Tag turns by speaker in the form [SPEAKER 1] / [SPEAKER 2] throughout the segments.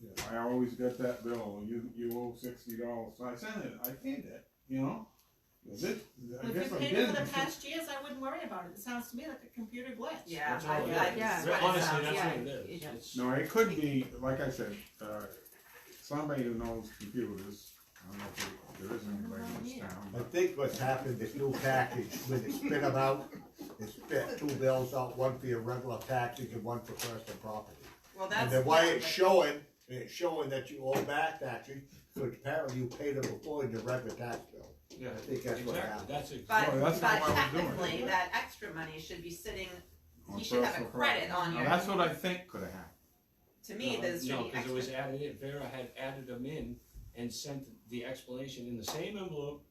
[SPEAKER 1] Yeah.
[SPEAKER 2] I always get that bill, you, you owe sixty dollars, I sent it, I paid it, you know? Is it, I
[SPEAKER 3] If
[SPEAKER 2] guess
[SPEAKER 3] you
[SPEAKER 2] I
[SPEAKER 3] paid it
[SPEAKER 2] didn't.
[SPEAKER 3] for the past years, I wouldn't worry about it, it sounds to me like a computer glitch.
[SPEAKER 4] Yeah,
[SPEAKER 5] That's
[SPEAKER 4] I, I,
[SPEAKER 5] all it
[SPEAKER 3] is.
[SPEAKER 4] yeah,
[SPEAKER 3] Re-
[SPEAKER 5] honestly, that's
[SPEAKER 4] yeah,
[SPEAKER 5] what it is.
[SPEAKER 4] yeah.
[SPEAKER 5] It's-
[SPEAKER 2] No, it could be, like I said, uh, somebody who knows computers, I don't know if there there is anybody in this
[SPEAKER 1] I
[SPEAKER 2] town.
[SPEAKER 1] think what's happened, this new package, when they spit them out, they spit two bills out, one for your regular taxes and one for personal property.
[SPEAKER 4] Well, that's.
[SPEAKER 1] And then why
[SPEAKER 4] yeah,
[SPEAKER 1] it's
[SPEAKER 4] but-
[SPEAKER 1] showing, it's showing that you owe back taxes, which apparently you paid them before in your regular tax bill.
[SPEAKER 5] Yeah,
[SPEAKER 1] I think that's what
[SPEAKER 5] exactly,
[SPEAKER 1] happened.
[SPEAKER 5] that's exactly.
[SPEAKER 4] But,
[SPEAKER 2] Well, that's
[SPEAKER 4] but
[SPEAKER 2] not why we're doing it.
[SPEAKER 4] technically, that extra money should be sitting,
[SPEAKER 2] on
[SPEAKER 4] you should have a
[SPEAKER 2] personal
[SPEAKER 4] credit
[SPEAKER 2] property.
[SPEAKER 4] on
[SPEAKER 2] Now,
[SPEAKER 4] your,
[SPEAKER 2] that's what I think could have happened.
[SPEAKER 4] to me, there's should
[SPEAKER 5] No,
[SPEAKER 4] be
[SPEAKER 5] cause it was
[SPEAKER 4] extra.
[SPEAKER 5] added in, Vera had added them in and sent the explanation in the same envelope,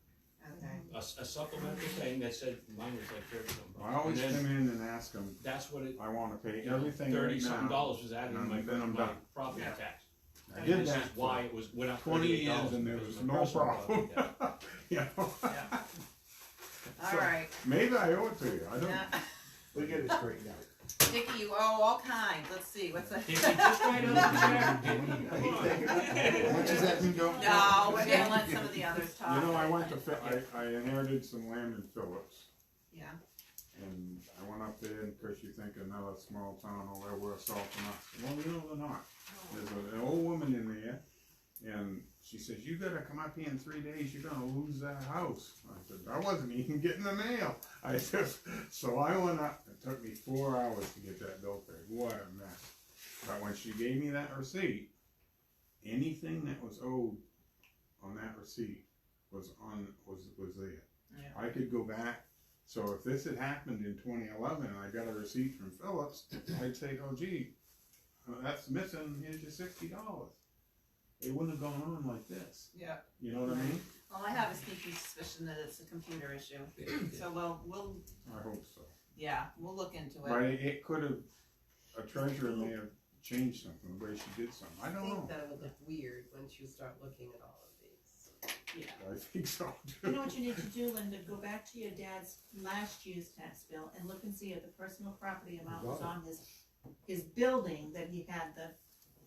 [SPEAKER 4] Okay.
[SPEAKER 5] a, s- a supplemental thing that said, mine was like thirty something.
[SPEAKER 2] I always
[SPEAKER 5] And
[SPEAKER 2] come
[SPEAKER 5] then
[SPEAKER 2] in and ask them,
[SPEAKER 5] that's what it,
[SPEAKER 2] I wanna pay
[SPEAKER 5] you know,
[SPEAKER 2] everything
[SPEAKER 5] thirty
[SPEAKER 2] right
[SPEAKER 5] something
[SPEAKER 2] now.
[SPEAKER 5] dollars was added in
[SPEAKER 2] and
[SPEAKER 5] my,
[SPEAKER 2] then I'm
[SPEAKER 5] my
[SPEAKER 2] done.
[SPEAKER 5] property
[SPEAKER 4] Yeah.
[SPEAKER 5] tax.
[SPEAKER 2] I
[SPEAKER 5] And
[SPEAKER 2] did
[SPEAKER 5] this is
[SPEAKER 2] that
[SPEAKER 5] why
[SPEAKER 2] for
[SPEAKER 5] it was, went up
[SPEAKER 2] twenty
[SPEAKER 5] thirty-eight
[SPEAKER 2] years
[SPEAKER 5] dollars.
[SPEAKER 2] and there was no problem. You know, So-
[SPEAKER 4] Alright,
[SPEAKER 2] maybe I owe it to you, I don't,
[SPEAKER 4] now,
[SPEAKER 1] We get it straightened out.
[SPEAKER 4] Dickie, you owe all kinds, let's see, what's that?
[SPEAKER 5] Dickie, just write it up there, Dickie, come on.
[SPEAKER 2] What does that mean, don't?
[SPEAKER 4] No, we're gonna let some of the others talk.
[SPEAKER 2] You know, I went to, Phil- I, I inherited some land in Phillips,
[SPEAKER 4] Yeah,
[SPEAKER 2] and I went up there, and of course you think another small town over there, we're assaulting us, well, you know, they're not. There's a- an old woman in there, and she says, you gotta come up here in three days, you're gonna lose that house. I said, I wasn't even getting the mail, I just, so I went up, it took me four hours to get that bill paid, what a mess. But when she gave me that receipt, anything that was owed on that receipt was on, was, was there.
[SPEAKER 4] Yeah.
[SPEAKER 2] I could go back, so if this had happened in twenty eleven and I got a receipt from Phillips, I'd say, oh gee, uh, that's missing, here's your sixty dollars. It wouldn't have gone on like this,
[SPEAKER 4] yeah.
[SPEAKER 2] you know what I mean?
[SPEAKER 4] Well, I have a sneaky suspicion that it's a computer issue, so we'll, we'll,
[SPEAKER 2] I hope so.
[SPEAKER 4] yeah, we'll look into
[SPEAKER 2] But
[SPEAKER 4] it.
[SPEAKER 2] it, it could have, a treasurer may have changed something, the way she did something, I
[SPEAKER 6] I
[SPEAKER 2] don't know.
[SPEAKER 6] think that'll look weird once you start looking at all of these.
[SPEAKER 4] Yeah.
[SPEAKER 2] I think so
[SPEAKER 3] You
[SPEAKER 2] too.
[SPEAKER 3] know what you need to do, Linda, go back to your dad's last year's tax bill and look and see if the personal property amount was on his, his building that he had the,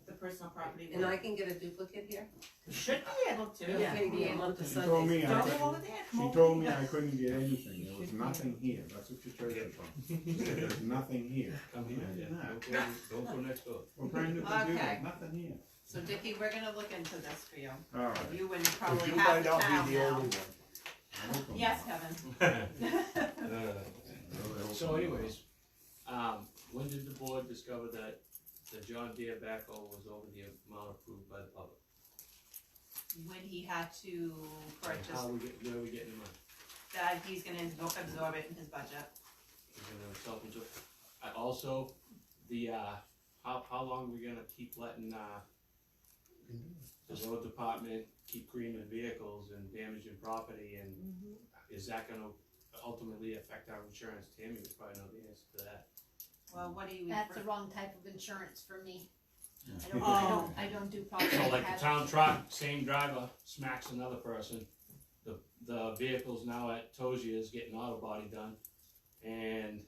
[SPEAKER 3] the personal property
[SPEAKER 6] And I
[SPEAKER 3] with.
[SPEAKER 6] can get a duplicate here?
[SPEAKER 3] Should be able to,
[SPEAKER 6] It's gonna be a month of
[SPEAKER 2] She told
[SPEAKER 6] Sundays.
[SPEAKER 2] me I
[SPEAKER 3] don't go
[SPEAKER 2] couldn't,
[SPEAKER 3] over there, come
[SPEAKER 2] she
[SPEAKER 3] over
[SPEAKER 2] told me
[SPEAKER 3] here.
[SPEAKER 2] I couldn't get anything, there was nothing here, that's what your treasurer told me. She said, There's nothing here,
[SPEAKER 5] Come here, yeah, don't go, don't go next door.
[SPEAKER 2] we're trying to do
[SPEAKER 4] Okay.
[SPEAKER 2] that, nothing here.
[SPEAKER 4] So Dickie, we're gonna look into this for you,
[SPEAKER 2] All right.
[SPEAKER 4] you and
[SPEAKER 1] Cause
[SPEAKER 4] probably
[SPEAKER 1] you
[SPEAKER 4] half
[SPEAKER 1] might
[SPEAKER 4] the
[SPEAKER 1] not
[SPEAKER 4] town
[SPEAKER 1] be the only
[SPEAKER 4] now.
[SPEAKER 1] one.
[SPEAKER 2] I hope I'm
[SPEAKER 4] Yes,
[SPEAKER 2] not.
[SPEAKER 4] Kevin,
[SPEAKER 5] Uh,
[SPEAKER 2] I really hope
[SPEAKER 5] So
[SPEAKER 2] I'm not.
[SPEAKER 5] anyways, um, when did the board discover that the John Deere backhoe was over the amount approved by the public?
[SPEAKER 4] when he had to
[SPEAKER 5] And How
[SPEAKER 4] purchase,
[SPEAKER 5] we get, where are we getting the money?
[SPEAKER 4] that he's gonna absor- absorb it in his budget.
[SPEAKER 5] Is it gonna self absorb? I also, the, uh, how, how long are we gonna keep letting, uh, the road department keep creaming vehicles and damaging property and is that gonna ultimately affect our insurance? Tammy would probably know the answer to that.
[SPEAKER 4] Well, what do you?
[SPEAKER 7] That's the wrong type of insurance for me. I don't, I
[SPEAKER 4] Oh.
[SPEAKER 7] don't, I don't do property.
[SPEAKER 5] So like
[SPEAKER 7] tax.
[SPEAKER 5] the town truck, same driver smacks another person, the, the vehicle's now at Tozia's getting auto body done, and,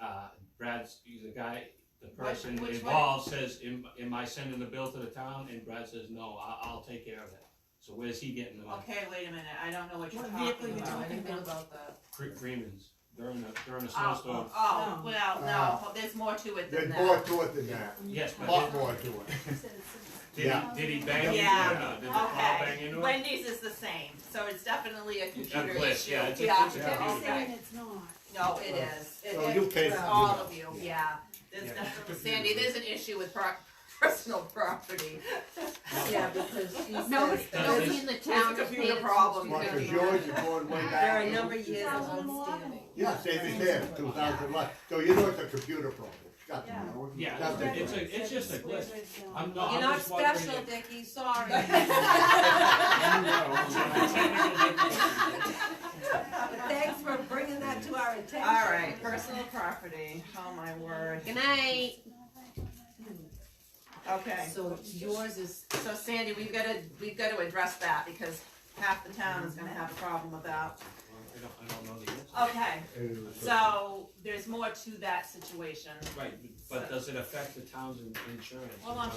[SPEAKER 5] uh, Brad's, the guy, the person
[SPEAKER 4] which one?
[SPEAKER 5] involved says, am, am I sending the bill to the town? And Brad says, no, I, I'll take care of that. So where's he getting the money?
[SPEAKER 4] Okay, wait a minute, I don't know what you're
[SPEAKER 3] What vehicle you
[SPEAKER 4] talking
[SPEAKER 6] I
[SPEAKER 4] about.
[SPEAKER 3] talking
[SPEAKER 6] didn't know about that.
[SPEAKER 5] Cre- Freeman's, during a, during a snowstorm,
[SPEAKER 4] Oh, oh,
[SPEAKER 3] No.
[SPEAKER 4] well, no,
[SPEAKER 1] Ah.
[SPEAKER 4] there's more to it than
[SPEAKER 1] There's
[SPEAKER 4] that.
[SPEAKER 1] more to it than that,
[SPEAKER 4] oh,
[SPEAKER 5] yes,
[SPEAKER 1] a
[SPEAKER 5] but
[SPEAKER 1] lot more to it.
[SPEAKER 5] did, did
[SPEAKER 1] Yeah.
[SPEAKER 5] he, did he bang into it or
[SPEAKER 4] Yeah.
[SPEAKER 5] not? Did the car bang
[SPEAKER 4] Okay,
[SPEAKER 5] into it?
[SPEAKER 4] Wendy's is the same, so it's definitely a computer
[SPEAKER 5] glitch,
[SPEAKER 4] issue.
[SPEAKER 5] yeah, it's a- it's a
[SPEAKER 2] Yeah.
[SPEAKER 7] They're
[SPEAKER 4] okay.
[SPEAKER 7] saying it's not.
[SPEAKER 4] No, it is. It-
[SPEAKER 1] Well, you
[SPEAKER 4] it-
[SPEAKER 1] paid
[SPEAKER 4] it's
[SPEAKER 1] for
[SPEAKER 4] All
[SPEAKER 1] it.
[SPEAKER 4] of you,
[SPEAKER 1] Yeah.
[SPEAKER 4] yeah. There's
[SPEAKER 5] Yeah.
[SPEAKER 4] definitely, Sandy, there's an issue with pro- personal property.
[SPEAKER 6] Yeah, because she says.
[SPEAKER 7] No,
[SPEAKER 5] Does
[SPEAKER 7] nobody in the
[SPEAKER 4] It's
[SPEAKER 7] town
[SPEAKER 4] a
[SPEAKER 7] has paid
[SPEAKER 4] computer
[SPEAKER 7] it
[SPEAKER 4] problem.
[SPEAKER 1] Well,
[SPEAKER 7] since
[SPEAKER 1] cause
[SPEAKER 7] 2000.
[SPEAKER 1] yours, you're going way
[SPEAKER 6] There
[SPEAKER 1] back.
[SPEAKER 6] are a number of years of
[SPEAKER 7] 2011.
[SPEAKER 6] outstanding.
[SPEAKER 1] Yeah, same as there, two thousand one, so you know it's a computer problem, it's got to be.
[SPEAKER 3] Yeah.
[SPEAKER 5] Yeah,
[SPEAKER 1] That's
[SPEAKER 5] it's a, it's just a glitch. I'm not, I'm
[SPEAKER 6] You're not
[SPEAKER 5] just wondering
[SPEAKER 6] special,
[SPEAKER 5] if-
[SPEAKER 6] Dickie, sorry. But thanks for bringing that to our attention.
[SPEAKER 4] All right, personal property. Oh, my word.
[SPEAKER 7] Good night.
[SPEAKER 4] Okay.
[SPEAKER 6] So yours is,
[SPEAKER 4] So Sandy, we've gotta, we've gotta address that because half the town is gonna have a problem with that.
[SPEAKER 5] I don't, I don't know the answer.
[SPEAKER 4] Okay,
[SPEAKER 1] And it's a-
[SPEAKER 4] so there's more to that situation.
[SPEAKER 5] Right, but does it affect the town's in- insurance?
[SPEAKER 4] Hold on,